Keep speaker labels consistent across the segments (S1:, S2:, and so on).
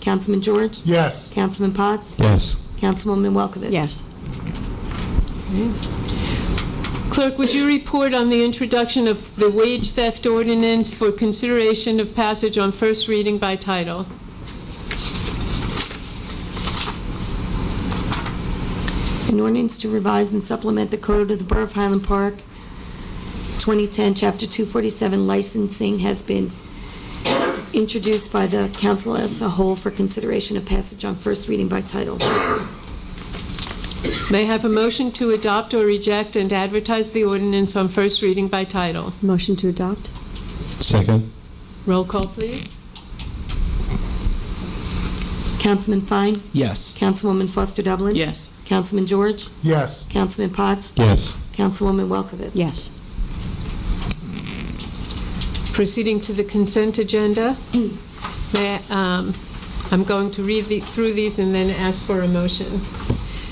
S1: Councilman George?
S2: Yes.
S1: Councilman Potts?
S3: Yes.
S1: Councilwoman Welkowitz?
S4: Yes. Clerk, would you report on the introduction of the wage theft ordinance for consideration of passage on first reading by title?
S1: An ordinance to revise and supplement the code of the Borough of Highland Park, 2010, Chapter 247 licensing has been introduced by the council as a whole for consideration of passage on first reading by title.
S4: May I have a motion to adopt or reject and advertise the ordinance on first reading by title?
S5: Motion to adopt?
S3: Second?
S4: Roll call, please.
S1: Councilman Fine?
S3: Yes.
S1: Councilwoman Foster Dublin?
S6: yes,
S1: Councilman George?
S2: Yes.
S1: Councilman Potts?
S3: Yes.
S1: Councilwoman Welkowitz?
S5: Yes.
S4: Proceeding to the consent agenda, May I- um, I'm going to read the- through these and then ask for a motion.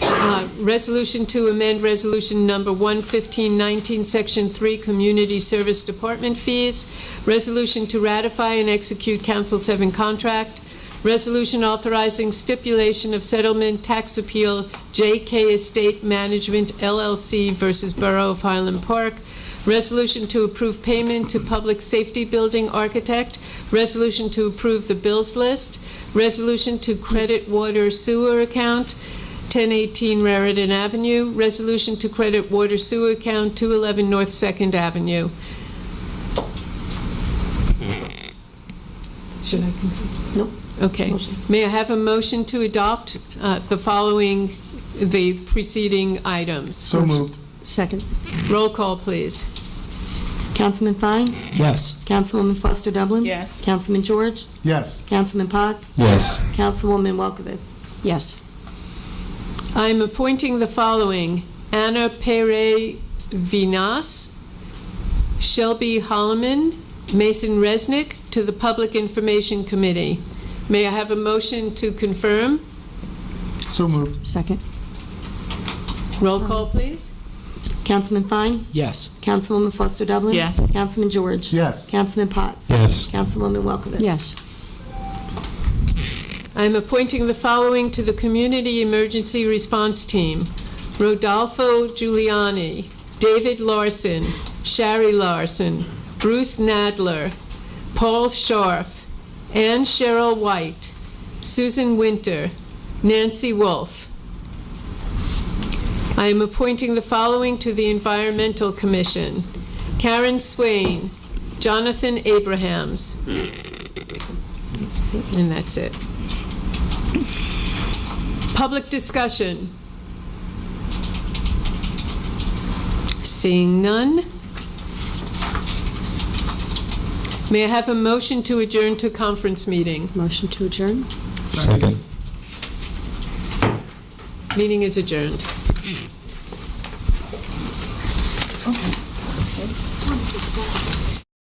S4: Uh, Resolution to amend Resolution Number 11519, Section 3, Community Service Department Fees. Resolution to ratify and execute Council 7 contract. Resolution authorizing stipulation of settlement tax appeal JK Estate Management LLC versus Borough of Highland Park. Resolution to approve payment to Public Safety Building Architect. Resolution to approve the bills list. Resolution to credit water sewer account, 1018 Raritan Avenue. Resolution to credit water sewer account, 211 North Second Avenue. Should I continue?
S1: Nope.
S4: Okay.
S1: Motion.
S4: May I have a motion to adopt uh, the following, the preceding items?
S2: So moved.
S5: Second?
S4: Roll call, please.
S1: Councilman Fine?
S3: Yes.
S1: Councilwoman Foster Dublin?
S6: Yes.
S1: Councilman George?
S2: Yes.
S1: Councilman Potts?
S3: Yes.
S1: Councilwoman Welkowitz?
S5: Yes.
S4: I am appointing the following: Anna Pere Vinas, Shelby Holloman, Mason Resnick to the Public Information Committee. May I have a motion to confirm?
S2: So moved.
S5: Second?
S4: Roll call, please.
S1: Councilman Fine?
S3: Yes.
S1: Councilwoman Foster Dublin?
S6: Yes.
S1: Councilman George?
S2: Yes.
S1: Councilman Potts?
S3: Yes.
S1: Councilwoman Welkowitz?
S5: Yes.
S4: I am appointing the following to the Community Emergency Response Team. Rodolfo Giuliani, David Larson, Shari Larson, Bruce Nadler, Paul Scharf, Ann Cheryl White, Susan Winter, Nancy Wolf. I am appointing the following to the Environmental Commission. Karen Swain, Jonathan Abrahams. And that's it. Public discussion. Seeing none. May I have a motion to adjourn to conference meeting?
S5: Motion to adjourn?
S3: Second?
S4: Meeting is adjourned.